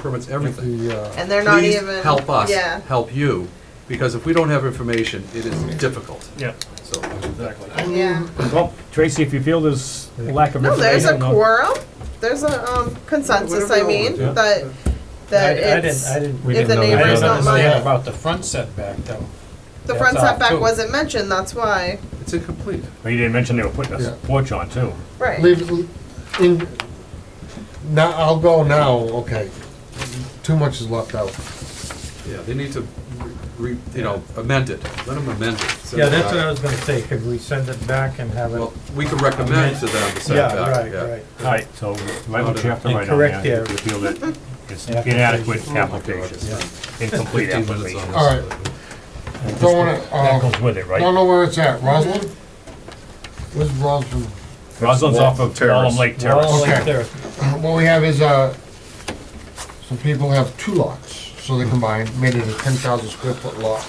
permits everything. uh, And they're not Please even- help us, yeah. help you, because if we don't have information, it is difficult. Yeah, So, exactly. Yeah. Well, Tracy, if you feel there's a lack of No, there's a information. I'll- quorum, there's a um, consensus, I mean, Yeah. that, that I- I didn't, it's, I didn't. We if the didn't know that. neighbors I don't didn't Yeah, mind. About the front setback though. The front That's all, setback too. wasn't mentioned, that's why, it's incomplete. Well, you didn't mention they were putting Yeah. a porch on too. right. Leave, it in, now, I'll go now, okay. Too much is left out. Yeah, they need to, re, re- you know, amend it, let them amend it. Send Yeah, it that's back. what I was gonna say, could we send it back and have it? Well, we could recommend to them the Yeah, setback, right, yeah. right. All right, so write what you have to write on Incorrect there. there. If you feel that it's Yeah. inadequate Oh God, it's application, incomplete Fifteen minutes on application. All this. right. Don't wanna, That uh, goes with it, don't right? know where it's at, Roslin? Where's Roslin? Roslyn's off of Wallem Lake Well, Terrace. like Okay. there, What we have is, uh, some people have two lots, so they combined, made it a ten thousand square foot lot.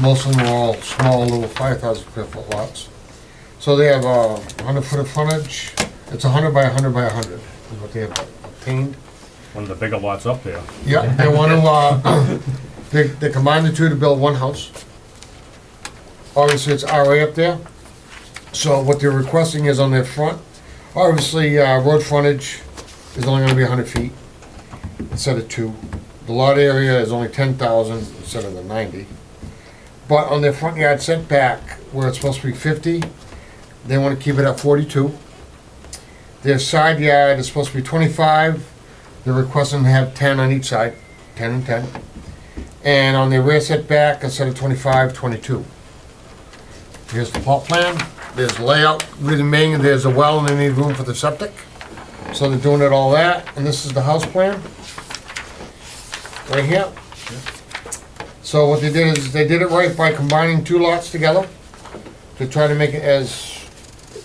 Most of them are all small, little five thousand square foot lots. So they have uh, a hundred foot of frontage, it's a hundred by a hundred by a hundred, is what they have obtained. One of the bigger lots up there. Yeah, they want to, uh, they, they combine the two to build one house. Obviously, it's RA up there. So what they're requesting is on their front, obviously, uh, road frontage is only gonna be hundred feet instead of two. The lot area is only ten thousand instead of the ninety. But on their front yard setback, where it's supposed to be fifty, they wanna keep it at forty-two. Their side yard is supposed to be twenty-five, they're requesting to have ten on each side, ten and ten. And on the rear setback, instead of 25, 22. Here's the plot plan, there's layout, with the main, there's a well, and they need room for the septic. So they're doing it all that, and this is the house plan. Right here. So what they did is, they did it right by combining two lots together to try to make it as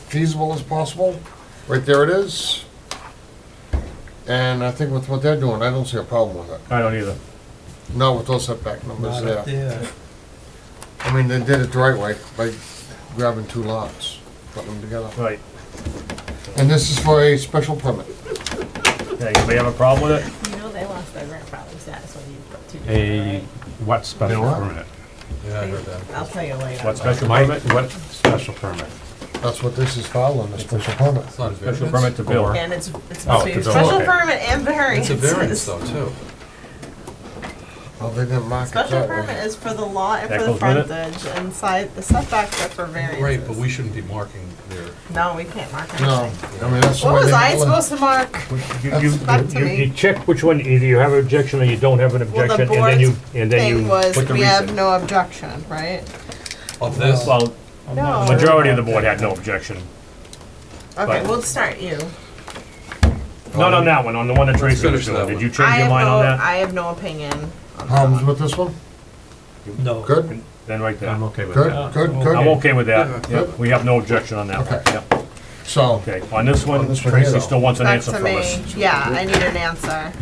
feasible as possible. Right there it is. And I think with what they're doing, I don't see a problem with it. I don't either. Not with those setback numbers not there. up there. I mean, they did it the right way by grabbing two lots, putting them together. Right. And this is for a special permit. Yeah, anybody have a problem with it? You know they lost their grandfather status when you put two A together, what special what? permit? Yeah, I heard that. right? I'll tell you later. What special Mike, permit? what special permit? That's what this is following, a special permit. It's not a Special variance. permit to build. And it's, it's Oh, supposed to be it's a special Special okay. permit and It's a variance variances. though, too. Well, they didn't mark it Special that way. permit is for the lot and That for the goes with frontage, and side, the setbacks are for Right, but variances. we shouldn't be marking their, No, we can't mark No, anything. I mean, that's the What way was they- I supposed to mark? You, you, Back to you- me. you check which one, either you have an objection or you don't have an Well, the objection, and then you, board's and then you Thing was, put the we have reason. no objection, right? of this, Well, I'm No. not sure majority of the about board that. had no objection. Okay, But- we'll start you. Not Um, on that one, on the one that Tracy was finish that doing. Did one. you I change your have mind on no, that? I have no opinion on that Problems one. with this one? No. Good, Then right there. I'm okay with that. good, good, I'm good. okay with that. Yeah. Yep, We have no objection on that one. Okay. Yep. So, Okay, on this On one, this one here, Tracy though. still wants an Back answer to from us. me, yeah, I need an answer.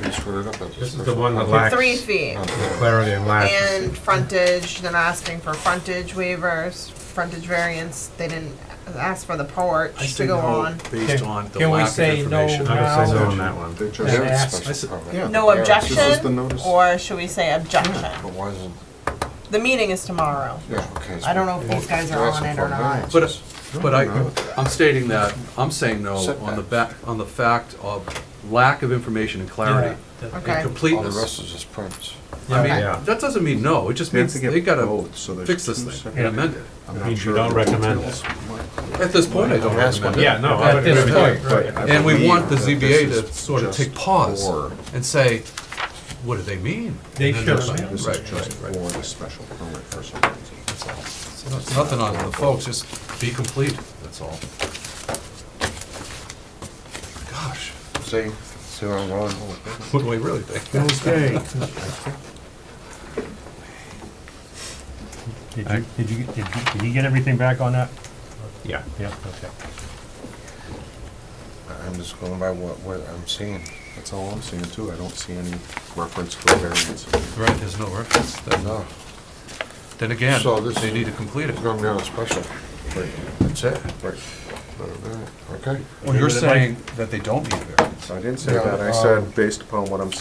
This is the one that lacks Three feet Um, clarity and lacks. and frontage, they're asking for frontage waivers, frontage variance, they didn't ask for the I porch say to go no, on. based on the Can we lack of say no information. now? I would say no on that one. They And ask- just. I said- Yeah. No Yeah, this is the objection, notice. or should we say objection? but why isn't, The meeting is tomorrow. yeah, okay. I don't know if these guys are on it or not. But, but I, I'm stating that, I'm saying no on the Setbacks. back, on the fact of lack of information and Yeah, clarity that- and Okay, All the rest completeness. is just prints. I Yeah. mean, that doesn't mean no, it just They have means to get they gotta both, so there's fix this two thing separate- and amend it. I'm It not means you sure don't the details. recommend this. At this point, I don't That's recommend it. what- Yeah, no, I At would this agree. point. But I And we want the believe ZBA that to this is sort of just take pause for- and say, what do they mean? They And then should have. there's- This Right, is just right, for right. the special permit for some reason, that's all. So that's Nothing on the folks, just be complete, that's all. Gosh, See, see where I'm going? what do we really think? Okay. Did you, did you, did you- did he get everything back on that? Yeah. Yep, okay. I'm just going by what, what I'm seeing. That's all I'm seeing too, I don't see any reference for variance. Right, there's no reference, then, No, then again, So this they is- need to complete it. it's gonna be on a special. That's it. okay? Well, you're saying that they don't need a variance. I didn't say Yeah, that, I um, said, based upon what I'm